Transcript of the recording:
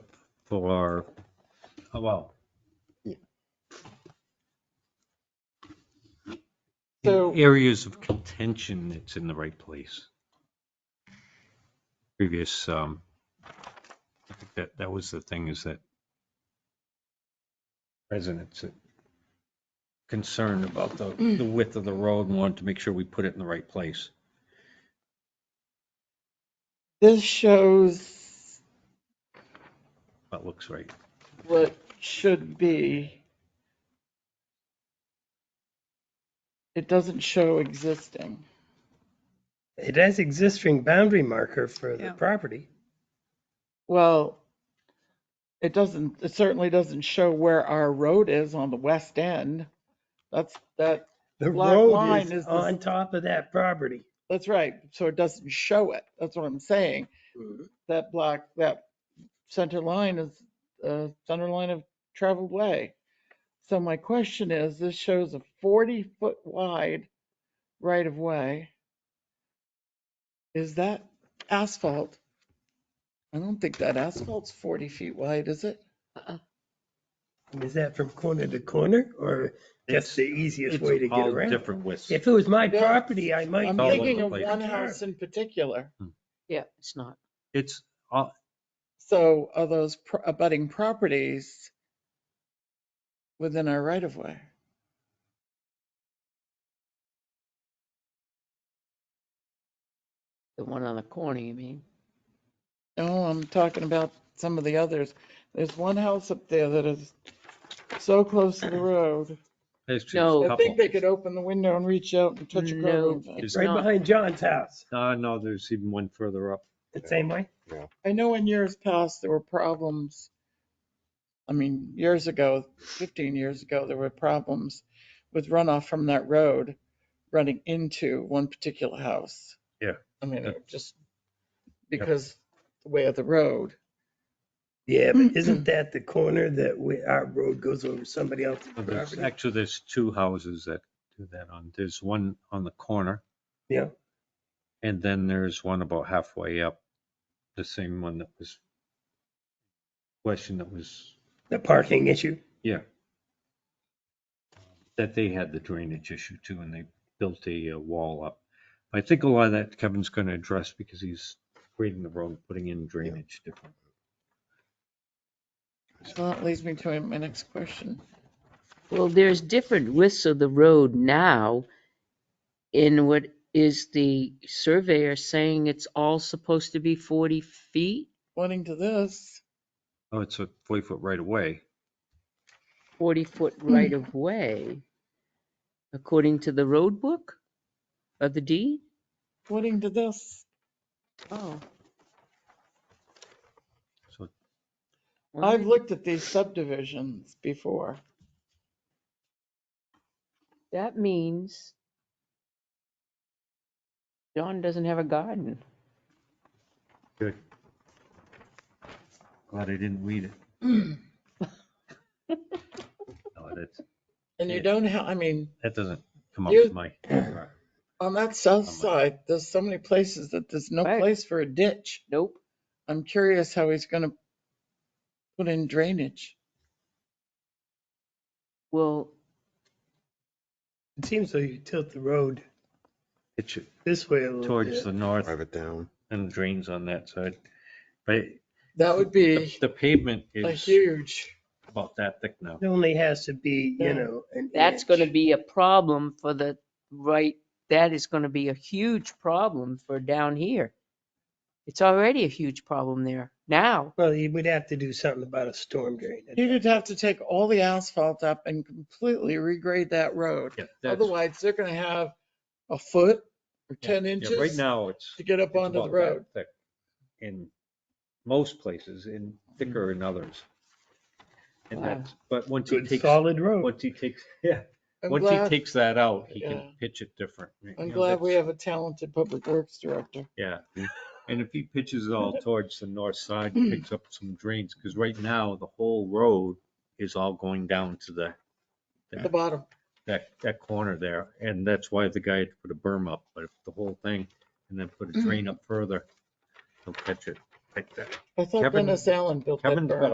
for, oh, well. Yeah. in So- Areas of contention, it's in the right place. Previous, um, I think that, that was the thing is that residents are concerned about the, Mm. the width of the road and wanted to make sure we put it in the right place. This shows That looks right. what should be. It doesn't show existing. It has existing boundary marker for the Yeah. property. Well, it doesn't, it certainly doesn't show where our road is on the west end. That's, that, The Black road line is is the- on top of that property. that's right. So it doesn't show it. That's what I'm saying. That black, that center line is uh center line of traveled way. So my question is, this shows a 40-foot wide right of way. Is that asphalt? I don't think that asphalt's 40 feet wide, is it? Is that from corner to corner or that's It's- the easiest It's way to get all around? Different widths. If it was my Yeah. property, I might. I'm all get over thinking the of place. one house in particular. Yeah, it's not. It's, all- So are those pro- abutting properties within our right of way? The one on the corner, you mean? No, Oh, I'm talking about some of the others. There's one house up there that is so close to the road. there's just No. a I think couple. they could open the window and reach out and touch a No. curb. It's Right not. behind John's house, Uh, no, there's even one further up. the same way. I know in years past, there were problems. I mean, years ago, 15 years ago, there were problems with runoff from that road running into one particular house. Yeah. I mean, it just because the way of the road. Yeah, but isn't that the corner that we, our road goes over somebody else's Uh, there's- property? Actually, there's two houses that do that on, there's one on the corner. Yeah. And then there's one about halfway up, the same one that was, question that was, The parking issue. yeah. That they had the drainage issue too, and they built a uh, wall up. I think a lot of that Kevin's going to address because he's grading the road, putting in drainage different. So that leads me to my next question. Well, there's different widths of the road now in what is the surveyor saying it's all supposed to be 40 feet, Pointing to this. Oh, it's a 40 foot right away. 40 foot right of way, according to the road book or the deed? According to this, Oh. So well, I've looked at these subdivisions before. That means John doesn't have a garden. Good. Glad I didn't read it. No, that's, And you Yeah. don't have, I mean, that doesn't come up You- with my, on that I'm like- south side, there's so many places that there's no Right. place for a ditch. Nope. I'm curious how he's gonna put in drainage. Well, It seems like you tilt the road it should, this way a little towards bit. the north Drive it down. and drains on that side. But That would be the pavement a is huge, about that thick now. It only has to be, Yeah. you know, an that's going to inch. be a problem for the right, that is going to be a huge problem for down here. It's already a huge problem there now. Well, you would have to do something about a storm drain. you'd have to take all the asphalt up and completely regrade that road. Yeah, that's- Otherwise, they're gonna have a foot or yeah, 10 yeah, inches Right to now, it's. get up it's onto the about that road. thick In most places, in thicker in others. And Wow. that's, but once he Good takes, solid road. once he takes, yeah, I'm once he glad- takes that out, he Yeah. can pitch it different. You I'm know, glad we that's- have a talented public works director. Yeah, and if he pitches it all towards the north side, he picks up some drains, because right now, the whole road is all going down to the, The bottom, that, that corner there, and that's why the guy had to put a berm up, but if the whole thing, and then put a drain up further, he'll catch it like that. I thought Kevin- Dennis Allen built that Kevin's got berm.